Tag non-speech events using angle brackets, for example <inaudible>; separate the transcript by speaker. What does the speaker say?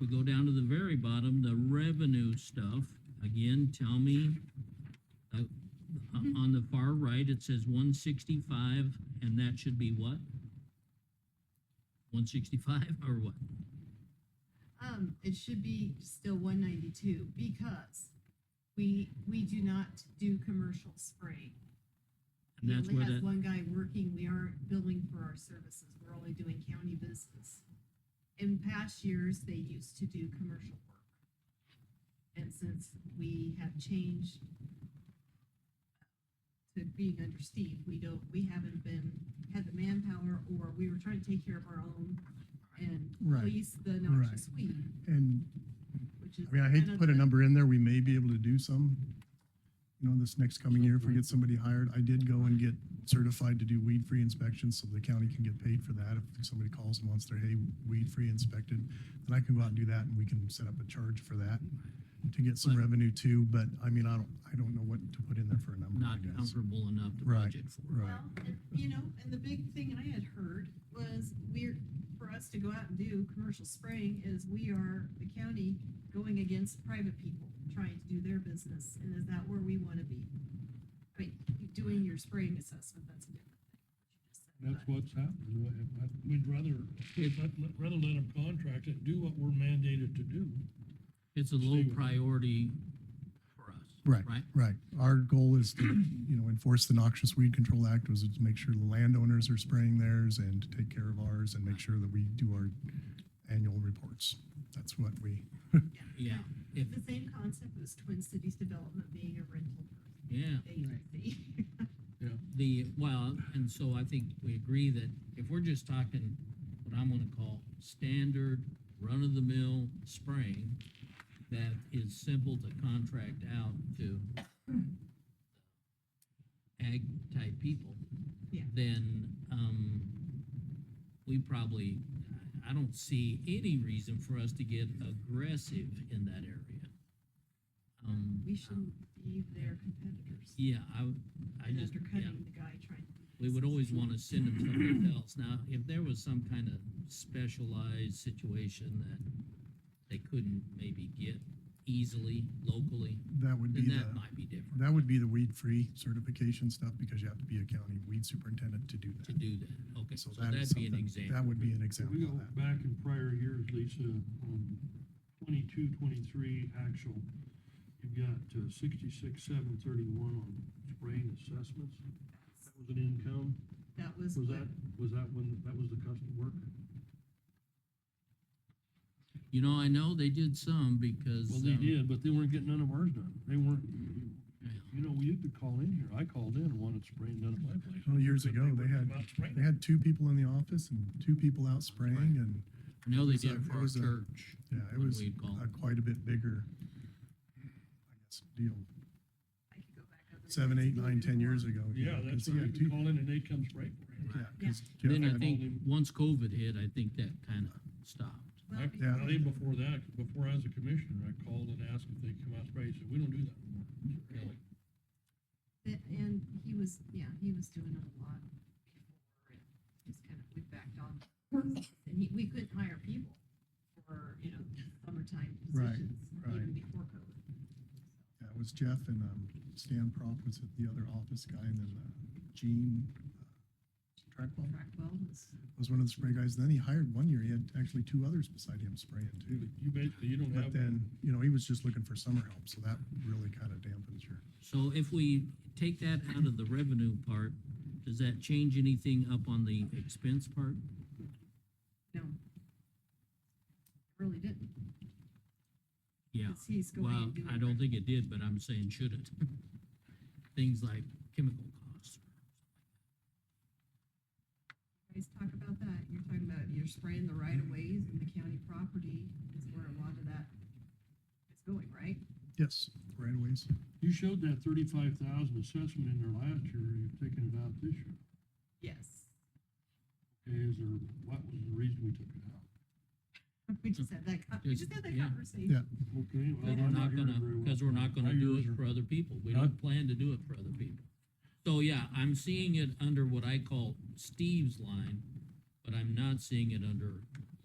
Speaker 1: we go down to the very bottom, the revenue stuff, again, tell me, uh, on on the far right, it says one sixty-five, and that should be what? One sixty-five or what?
Speaker 2: Um, it should be still one ninety-two because we, we do not do commercial spray.
Speaker 1: And
Speaker 2: We
Speaker 1: that's
Speaker 2: only
Speaker 1: where
Speaker 2: have
Speaker 1: that,
Speaker 2: one guy working, we aren't billing for our services, we're only doing county business. In past years, they used to do commercial work. And since we have changed uh, to being under Steve, we don't, we haven't been, had the manpower, or we were trying to take care of our own and
Speaker 3: Right.
Speaker 2: police the noxious weed,
Speaker 3: And,
Speaker 2: which is.
Speaker 3: I mean, I hate
Speaker 2: kind
Speaker 3: to
Speaker 2: of
Speaker 3: put a
Speaker 2: the-
Speaker 3: number in there, we may be able to do some, you know, this next coming year if we get somebody hired. I did go and get certified to do weed-free inspections, so the county can get paid for that. If somebody calls and wants their hay weed-free inspected, then I can go out and do that, and we can set up a charge for that to get some
Speaker 1: But-
Speaker 3: revenue too, but I mean, I don't, I don't know what to put in there for a number, I
Speaker 1: not
Speaker 3: guess.
Speaker 1: comfortable enough to
Speaker 3: Right,
Speaker 1: budget for.
Speaker 3: Right,
Speaker 2: Well, and, you know, and the big thing I had heard was we're, for us to go out and do commercial spraying is we are, the county, going against private people trying to do their business, and is that where we wanna be? I mean, doing your spraying assessment, that's a different thing.
Speaker 4: That's what's happened. We- I- We'd rather, we'd let- let- rather let them contract it, do what we're mandated to do.
Speaker 1: It's a low
Speaker 4: Stay with it.
Speaker 1: priority for us.
Speaker 3: Right.
Speaker 1: Right?
Speaker 3: right. Our goal is to, you know, enforce the Noxious Weed Control Act was to make sure the landowners are spraying theirs and to take care of ours and make sure that we do our annual reports. That's what we,
Speaker 1: Yeah, if,
Speaker 2: The same concept as Twin Cities Development being a rental
Speaker 1: yeah.
Speaker 2: agency. <laughs>
Speaker 1: the, well, and so I think we agree that if we're just talking what I'm gonna call standard, run-of-the-mill spraying, that is simple to contract out to ag-type people.
Speaker 2: Yeah.
Speaker 1: Then, um, we probably, I- I don't see any reason for us to get aggressive in that area. Um,
Speaker 2: We shouldn't be their competitors
Speaker 1: Yeah, I, would- I
Speaker 2: and
Speaker 1: just, yeah.
Speaker 2: undercutting the guy trying. to do
Speaker 1: We would
Speaker 2: business.
Speaker 1: always want to send them someplace else. Now, if there was some kind of specialized situation that they couldn't maybe get easily locally,
Speaker 3: that would be
Speaker 1: then
Speaker 3: the,
Speaker 1: that might be different
Speaker 3: that would be the weed-free certification stuff because you have to be a county weed superintendent to do
Speaker 1: to
Speaker 3: that.
Speaker 1: do that. Okay, so
Speaker 3: So that is
Speaker 1: that'd be an
Speaker 3: something-
Speaker 1: example.
Speaker 3: That would be an
Speaker 4: If We
Speaker 3: example
Speaker 4: go
Speaker 3: of that.
Speaker 4: back in prior years, Lisa, on twenty-two, twenty-three actual, you've got uh, sixty-six, seven thirty-one on spraying assessments. That was an income.
Speaker 2: That was.
Speaker 4: Was
Speaker 2: what-
Speaker 4: that, was that when, that was the custom work?
Speaker 1: You know, I know they did some because.
Speaker 4: Well, they
Speaker 1: um,
Speaker 4: did, but they weren't getting none of ours done. They weren't,
Speaker 1: yeah.
Speaker 4: you know, you could call in here. I called in and wanted spraying done at my place.
Speaker 3: Well, years
Speaker 4: But
Speaker 3: ago, they
Speaker 4: weren't
Speaker 3: had-
Speaker 4: about spraying.
Speaker 3: They had two people in the office and two people out spraying and,
Speaker 1: I know they
Speaker 3: was
Speaker 1: did
Speaker 3: a-
Speaker 1: it for
Speaker 3: it
Speaker 1: our
Speaker 3: was a-
Speaker 1: church.
Speaker 3: yeah, it
Speaker 1: when
Speaker 3: was
Speaker 1: We'd call.
Speaker 3: a quite a bit bigger, I guess, deal.
Speaker 2: I could go back up and-
Speaker 3: Seven, eight, nine, ten years ago. you
Speaker 4: Yeah,
Speaker 3: know, 'cause
Speaker 4: that's
Speaker 3: he
Speaker 4: right.
Speaker 3: had
Speaker 4: You
Speaker 3: two-
Speaker 4: call in and they come spray for it.
Speaker 3: Yeah,
Speaker 1: Right.
Speaker 3: 'cause Jeff
Speaker 1: Then I
Speaker 3: had-
Speaker 1: think,
Speaker 4: them-
Speaker 1: once COVID hit, I think that kind of stopped.
Speaker 2: Well,
Speaker 4: Actually,
Speaker 3: Yeah.
Speaker 4: Way before that, before I was a commissioner, I called and asked if they'd come out spray. He said, we don't do that anymore.
Speaker 1: Really?
Speaker 2: Th- And he was, yeah, he was doing it a lot. before and Just kind of, we backed on. And he, we couldn't hire people for, you know, summertime
Speaker 3: Right,
Speaker 2: positions, even
Speaker 3: right.
Speaker 2: before COVID.
Speaker 3: yeah, it was Jeff and um, Stan Prop was the other office guy and then uh, Gene uh, Trackwell
Speaker 2: Track well was,
Speaker 3: was one of the spray guys. Then he hired one year, he had actually two others beside him spraying too.
Speaker 4: You basically, you don't
Speaker 3: But
Speaker 4: have,
Speaker 3: then, you know, he was just looking for summer help, so that really kind of dampens your.
Speaker 1: So if we take that out of the revenue part, does that change anything up on the expense part?
Speaker 2: no. Really didn't.
Speaker 1: Yeah.
Speaker 2: 'cause he's going
Speaker 1: Well,
Speaker 2: and doing.
Speaker 1: I don't think it did, but I'm saying should it? Things like chemical costs.
Speaker 2: You Guys talk about that. You're talking about you're spraying the right of ways and the county property is where a lot of that is going, right?
Speaker 3: Yes, right away.
Speaker 4: you showed that thirty-five thousand assessment in there last year. You've taken it out this year.
Speaker 2: Yes.
Speaker 4: Okay, is there, what was the reason we took it out?
Speaker 2: <laughs> We just had that, con- we
Speaker 1: Just-
Speaker 2: just had that
Speaker 1: yeah.
Speaker 2: conversation.
Speaker 3: Yeah.
Speaker 4: Okay. well,
Speaker 1: Because we're
Speaker 4: I'm
Speaker 1: not
Speaker 4: hearing
Speaker 1: gonna,
Speaker 4: very well.
Speaker 1: because we're not
Speaker 4: My
Speaker 1: gonna do
Speaker 4: ears
Speaker 1: it
Speaker 4: are-
Speaker 1: for other people. We
Speaker 4: Huh?
Speaker 1: don't plan to do it for other people. So yeah, I'm seeing it under what I call Steve's line, but I'm not seeing it under